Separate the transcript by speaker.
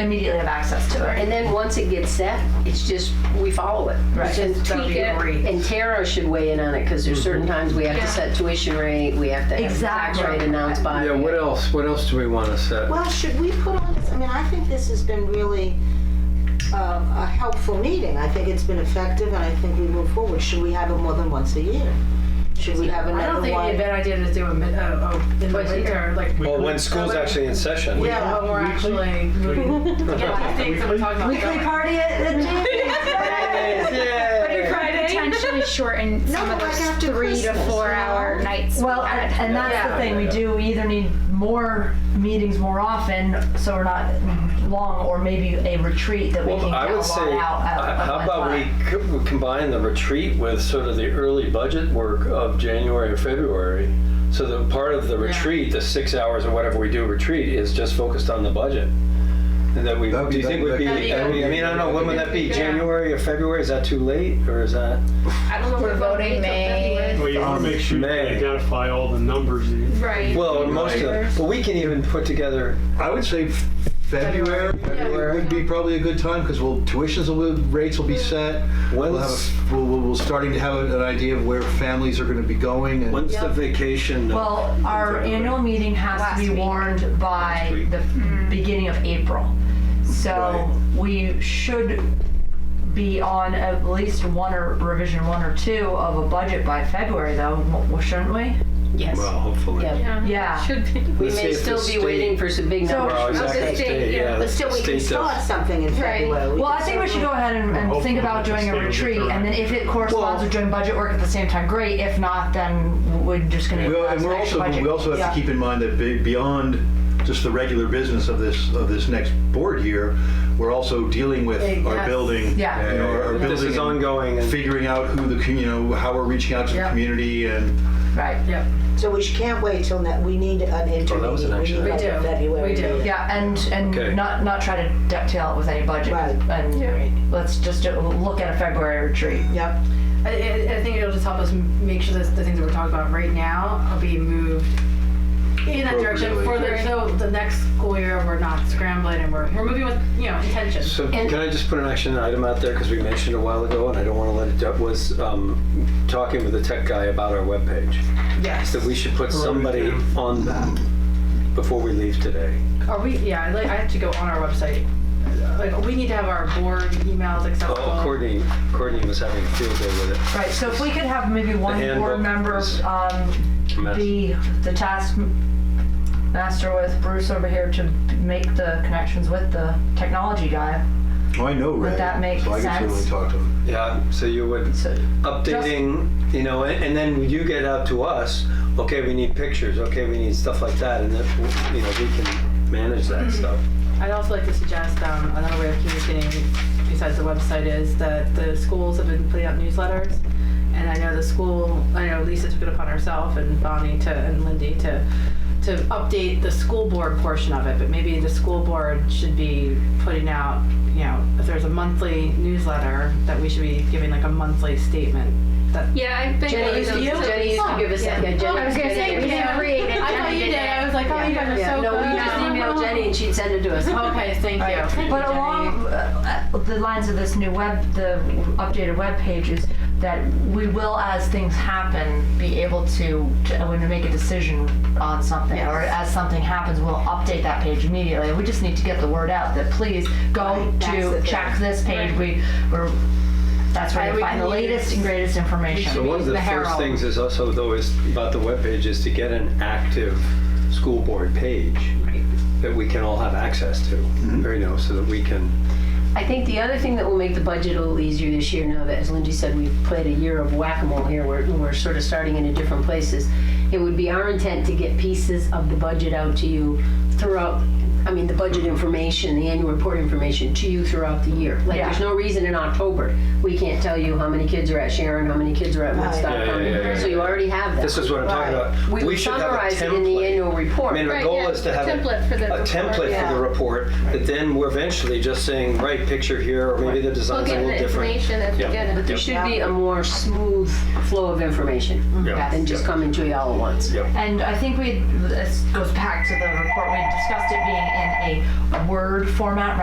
Speaker 1: immediately have access to it.
Speaker 2: And then once it gets set, it's just, we follow it. We
Speaker 1: Right.
Speaker 2: just
Speaker 1: So
Speaker 2: tweak
Speaker 1: you
Speaker 2: it.
Speaker 1: agree.
Speaker 2: And Tara should weigh in on it, because there's certain times we have
Speaker 1: Yeah.
Speaker 2: to set tuition rate, we have to have the tax
Speaker 1: Exactly.
Speaker 2: rate announced by.
Speaker 3: Yeah, what else, what else do we want to set?
Speaker 4: Well, should we put on this, I mean, I think this has been really uh, a helpful meeting. I think it's been effective and I think we move forward. Should we have it more than once a year? Should we have
Speaker 1: I don't
Speaker 4: another
Speaker 1: think it'd be
Speaker 4: one?
Speaker 1: a bad idea to do a, mid- uh, uh, in the
Speaker 2: Twice a
Speaker 1: winter, like,
Speaker 5: Well, when school's actually in session.
Speaker 4: Yeah.
Speaker 1: when we're actually moving. Yeah, these things that we're talking about.
Speaker 4: Weekly party at the gym.
Speaker 6: potentially shorten some
Speaker 4: No,
Speaker 6: of
Speaker 4: but
Speaker 6: those
Speaker 4: like after
Speaker 6: three to
Speaker 4: Christmas,
Speaker 6: four
Speaker 4: you know?
Speaker 6: hour nights. we
Speaker 7: Well,
Speaker 6: had.
Speaker 7: and, and that's the thing. We do. We either need more meetings more often, so we're not long, or maybe a retreat that we
Speaker 5: Well,
Speaker 7: can
Speaker 5: I
Speaker 7: get
Speaker 5: would
Speaker 7: a lot
Speaker 5: say,
Speaker 7: out. at-
Speaker 5: uh,
Speaker 7: at
Speaker 5: how
Speaker 7: one
Speaker 5: about we
Speaker 7: time.
Speaker 5: co- we combine the retreat with sort of the early budget work of January or February? So that part of the retreat, the six hours or whatever we do retreat, is just focused on the budget. And that we,
Speaker 8: That'd
Speaker 5: do
Speaker 8: be-
Speaker 5: you think would
Speaker 8: that'd
Speaker 5: be,
Speaker 8: be-
Speaker 5: that'd be- I mean, I don't know, when would that be?
Speaker 1: Yeah.
Speaker 5: January or February? Is that too late or is that?
Speaker 1: I don't know if
Speaker 6: We're voting May.
Speaker 9: Well, you want to make sure you
Speaker 5: May.
Speaker 9: identify all the numbers. that you-
Speaker 1: Right.
Speaker 5: Well, most of them, but we can even put together,
Speaker 8: I would say f- February, February would be probably a good time because we'll tuitions will rates will be set. We'll have
Speaker 5: When's-
Speaker 8: a, we'll, we'll, we'll starting to have an idea of where families are going to be going and
Speaker 5: when's the vacation?
Speaker 7: Well, our
Speaker 5: February?
Speaker 7: annual meeting has to be warned
Speaker 5: Last
Speaker 7: by
Speaker 5: week.
Speaker 7: the beginning of April, so we should be on at least one or revision one or two of a budget by February, though, w- shouldn't we?
Speaker 2: Yes.
Speaker 5: Well, hopefully.
Speaker 2: Yeah.
Speaker 7: Yeah.
Speaker 1: Should be.
Speaker 2: We
Speaker 5: Let's see
Speaker 2: may
Speaker 5: if the
Speaker 2: still be
Speaker 5: state-
Speaker 2: waiting for some big
Speaker 7: So-
Speaker 2: numbers.
Speaker 5: Well,
Speaker 2: from the
Speaker 5: exactly,
Speaker 2: state.
Speaker 5: state, yeah.
Speaker 4: But still,
Speaker 5: the
Speaker 4: we can
Speaker 5: state does.
Speaker 4: start something in February.
Speaker 7: Well, I think we should go ahead and, and think about doing a
Speaker 9: Hopefully it's
Speaker 7: retreat, and then if it
Speaker 5: Well-
Speaker 7: corresponds with doing budget work at the same time, great. If not, then we're just gonna.
Speaker 8: We al-
Speaker 7: have
Speaker 8: and
Speaker 7: some
Speaker 8: we're
Speaker 7: extra
Speaker 8: also,
Speaker 7: budget.
Speaker 8: we also have to
Speaker 7: Yeah.
Speaker 8: keep in mind that be- beyond just the regular business of this, of this next board year, we're also dealing with our
Speaker 1: Yes.
Speaker 8: building.
Speaker 7: Yeah.
Speaker 8: you know, our- our
Speaker 5: This is
Speaker 8: building and
Speaker 5: ongoing and.
Speaker 8: Figuring out who the, commu- you know, how we're reaching out to the
Speaker 1: Yeah.
Speaker 8: community and
Speaker 7: Right,
Speaker 1: Yep.
Speaker 4: So we sh- can't wait till, ne- we need an interview.
Speaker 5: Oh, that was an action
Speaker 1: item. We do.
Speaker 4: February.
Speaker 1: We do.
Speaker 4: meeting.
Speaker 7: yeah, and,
Speaker 5: Okay.
Speaker 7: and not, not try to dovetail it with any budget.
Speaker 4: Right.
Speaker 1: Yeah.
Speaker 7: And let's just do- look at a February retreat.
Speaker 4: Yep.
Speaker 1: I, I I think it'll just help us m- make sure that the things that we're talking about right now are being moved in that direction for the, so the next school year we're not scrambling and we're, we're moving with you know intention.
Speaker 5: So
Speaker 7: And-
Speaker 5: can I just put an action item out there, because we mentioned a while ago, and I don't want to let it, up was um, talking with the tech guy about our webpage,
Speaker 1: yes.
Speaker 5: that we should put somebody on that before we leave today.
Speaker 1: Are we? Yeah. I'd Like I have to go on our website. Like we need to have our board emails accessible.
Speaker 5: Oh, Courtney, Courtney was having a field day with it.
Speaker 7: Right, so if we could have maybe one
Speaker 5: handbook
Speaker 7: board member,
Speaker 5: is-
Speaker 7: um,
Speaker 5: Mess.
Speaker 7: be the task master with Bruce over here to make the connections with the technology guy.
Speaker 8: Well, oh, I know Ray.
Speaker 7: that make
Speaker 8: So I can
Speaker 7: sense?
Speaker 8: certainly talk to him.
Speaker 5: Yeah, so you would,
Speaker 7: So-
Speaker 5: updating, you know, and and then you get out to us, okay, we need pictures, okay, we need stuff like that, and then, you know, we can manage
Speaker 6: Mm-hmm.
Speaker 5: that stuff.
Speaker 1: I'd also like to suggest um, another way of communicating besides the website is that the schools have been putting out newsletters. And I know the school, I know Lisa took it upon herself and Bonnie to, and Lindy to, to update the school board portion of it. But maybe the school board should be putting out, you know, if there's a monthly newsletter, that we should be giving like a monthly statement.
Speaker 6: Yeah, I've been.
Speaker 2: Jenny used to,
Speaker 1: You?
Speaker 2: Jenny used to give us, yeah, Jenny.
Speaker 6: I was gonna say, we
Speaker 2: yeah.
Speaker 6: have created.
Speaker 1: I thought
Speaker 6: Jenny
Speaker 1: you
Speaker 6: did
Speaker 1: did, I
Speaker 6: it.
Speaker 1: was like, oh, you guys are
Speaker 2: Yeah,
Speaker 1: so
Speaker 2: no, we
Speaker 1: good.
Speaker 2: just emailed Jenny and she'd send it to us.
Speaker 1: Okay, thank you.
Speaker 7: But along uh, uh, the lines of this new web, the updated web page is that we will, as things happen, be able to, to uh, when we make a decision on something, or as something happens, we'll update that page immediately. We just need to get the word out that please go
Speaker 4: that's the
Speaker 7: to
Speaker 4: thing.
Speaker 7: check this page. We, we're, that's where
Speaker 1: Right,
Speaker 7: you
Speaker 1: we
Speaker 7: find the
Speaker 1: can
Speaker 7: latest
Speaker 1: use-
Speaker 7: and greatest information.
Speaker 5: So one of the,
Speaker 1: The
Speaker 5: first
Speaker 1: Herald.
Speaker 5: things is also though is about the webpage is to get an active school board page that we can all have access to, or, you know, so that we can.
Speaker 2: I think the other thing that will make the budget a little easier this year, now that, as Lindsay said, we've played a year of whack-a-mole here, where we're sort of starting in a different places. It would be our intent to get pieces of the budget out to you throughout, I mean, the budget information, the annual report information to you throughout the year. Like, there's
Speaker 7: Yeah.
Speaker 2: no reason in October, we can't tell you how many kids are at Sharon, how many kids are at Woodstock.
Speaker 5: Yeah, yeah,
Speaker 2: how many-
Speaker 5: yeah, yeah,
Speaker 2: So you
Speaker 5: yeah.
Speaker 2: already have that.
Speaker 5: This is what I'm talking
Speaker 4: Right.
Speaker 5: about.
Speaker 2: We would
Speaker 5: should have a
Speaker 2: summarize it in the
Speaker 5: template.
Speaker 2: annual
Speaker 5: I
Speaker 2: report.
Speaker 5: mean, our
Speaker 6: Right,
Speaker 5: goal
Speaker 6: yeah,
Speaker 5: is to
Speaker 6: a
Speaker 5: have
Speaker 6: template for the
Speaker 5: a template
Speaker 6: report.
Speaker 5: for the
Speaker 4: Yeah.
Speaker 5: report that then we're eventually just saying, right, picture here, or maybe the
Speaker 6: We'll
Speaker 5: design's a
Speaker 6: get
Speaker 5: little
Speaker 6: the
Speaker 5: different.
Speaker 6: information as we
Speaker 5: Yeah.
Speaker 6: get
Speaker 2: But
Speaker 6: it.
Speaker 2: there should be a more smooth flow of information
Speaker 5: Yeah.
Speaker 2: than just coming to you all at once.
Speaker 7: And I think we, this goes back to the report, we discussed it being in a Word format